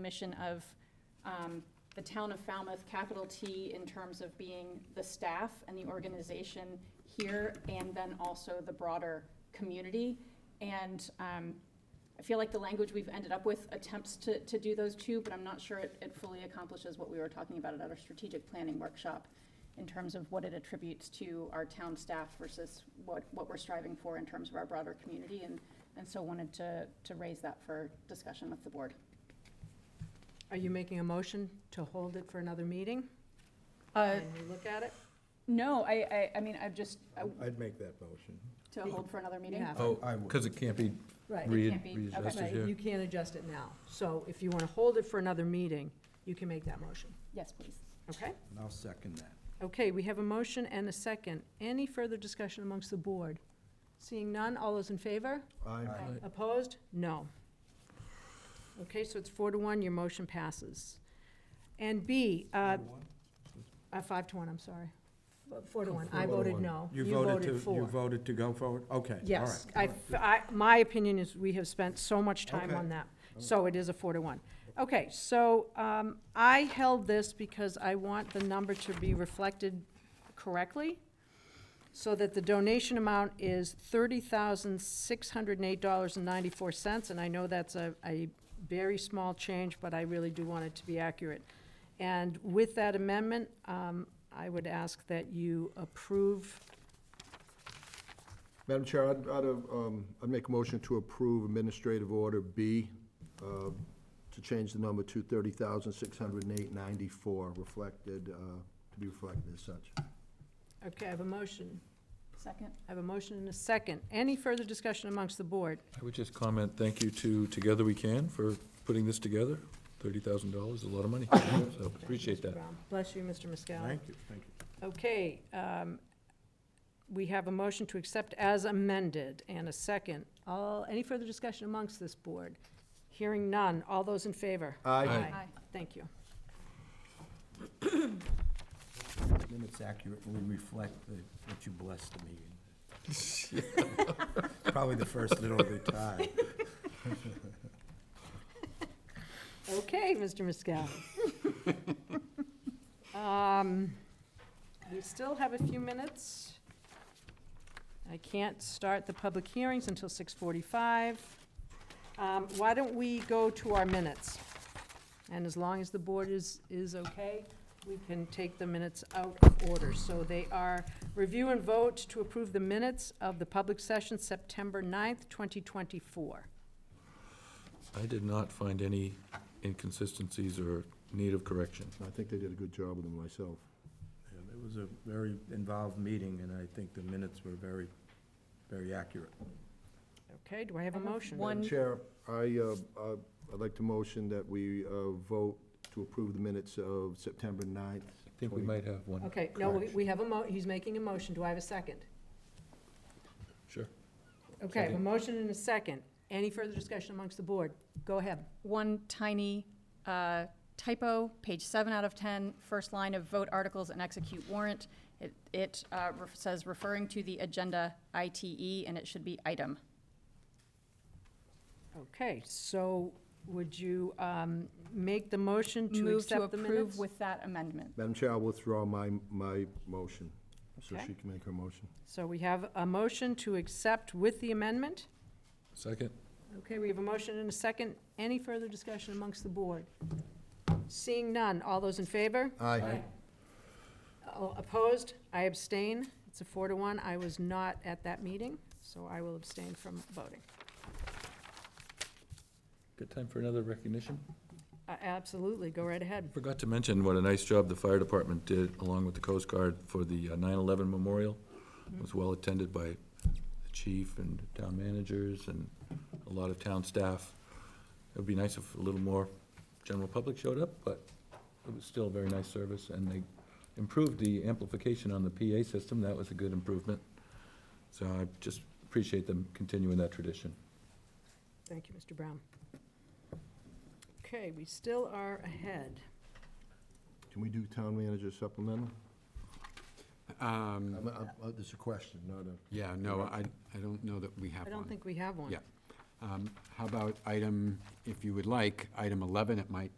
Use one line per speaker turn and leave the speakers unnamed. mission of um, the town of Falmouth, capital T, in terms of being the staff and the organization here, and then also the broader community. And um, I feel like the language we've ended up with attempts to, to do those two, but I'm not sure it, it fully accomplishes what we were talking about at our strategic planning workshop in terms of what it attributes to our town staff versus what, what we're striving for in terms of our broader community. And, and so wanted to, to raise that for discussion with the board.
Are you making a motion to hold it for another meeting?
Uh,
And we look at it?
No, I, I, I mean, I've just, uh, I-
I'd make that motion.
to hold for another meeting?
Yeah.
Oh,
I would.
because it can't be
Right,
Re-
re-
can't be- okay.
right,
readjusted
you
here.
can't adjust it now. So if you want to hold it for another meeting, you can make that motion,
Yes, please.
okay?
And I'll second that.
Okay, we have a motion and a second. Any further discussion amongst the board? Seeing none, all those in favor?
Aye.
Opposed? No. Okay, so it's four to one, your motion passes. And B, uh, uh, five to one, I'm sorry. Four to one, I voted no.
You voted to,
for.
you voted to go forward? Okay. all right,
Yes,
all
I,
right.
I, my opinion is we have spent so much time
Okay.
on that, so it is a four to one. Okay, so, um, I held this because I want the number to be reflected correctly, so that the donation amount is thirty thousand, six hundred and eight dollars and ninety-four cents, and I know that's a, a very small change, but I really do want it to be accurate. And with that amendment, um, I would ask that you approve
Madam Chair, I'd, I'd, um, I'd make a motion to approve Administrative Order B, uh, to change the number to thirty thousand, six hundred and eight ninety-four, reflected, uh, to be reflected as such.
Okay, I have a motion.
Second?
I have a motion and a second. Any further discussion amongst the board?
I would just comment, thank you to Together We Can for putting this together. Thirty thousand dollars is a lot of money, so appreciate that.
Bless you, Mr. Muscala.
Thank you, thank you.
Okay, um, we have a motion to accept as amended and a second. All, any further discussion amongst this board? Hearing none. All those in favor?
Aye.
Thank you.
Then it's accurately reflect the- what you blessed the meeting. Probably the first in over time.
Okay, Mr. Muscala. Um, We still have a few minutes. I can't start the public hearings until 6:45. Um, Why don't we go to our minutes? And as long as the board is, is okay, we can take the minutes out of order. So they are review and vote to approve the minutes of the public session September 9th, 2024.
I did not find any inconsistencies or need of correction.
I think they did a good job with them myself.
It was a very involved meeting, and I think the minutes were very, very accurate.
Okay, do I have a
I have
motion?
one-
Madam Chair, I, uh, uh, I'd like to motion that we, uh, vote to approve the minutes of September
I
9th.
think we might have one.
Okay, no, we-
Correct.
we have a mo, he's making a motion, do I have a second?
Sure.
Okay, I have a
Second.
motion and a second. Any further discussion amongst the board? Go ahead.
One tiny uh, typo, page seven out of 10, first line of vote articles and execute warrant. It- It uh, ref- says referring to the agenda ITE, and it should be item.
Okay, so would you um, make the motion to
Move to
accept the
approve
minutes?
with that amendment.
Madam Chair, I'll withdraw my, my motion, so
Okay.
she can make her motion.
So we have a motion to accept with the amendment.
Second?
Okay, we have a motion and a second. Any further discussion amongst the board? Seeing none, all those in favor?
Aye.
Oh, Opposed? I abstain. It's a four to one. I was not at that meeting, so I will abstain from voting.
Good time for another recognition?
Uh, Absolutely, go right ahead.
Forgot to mention what a nice job the fire department did, along with the Coast Guard, for the uh, 9/11 memorial. It was well attended by the chief and town managers and a lot of town staff. It would be nice if a little more general public showed up, but it was still a very nice service, and they improved the amplification on the PA system. That was a good improvement. So I just appreciate them continuing that tradition.
Thank you, Mr. Brown. Okay, we still are ahead.
Can we do town manager supplemental?
Um,
Mm.
I'm- I'm- uh, There's a question, not a,
Yeah, no, Um, I, I don't know that we have
I
one.
don't think we have one.
Yeah. Um, How about item, if you would like, item 11, it might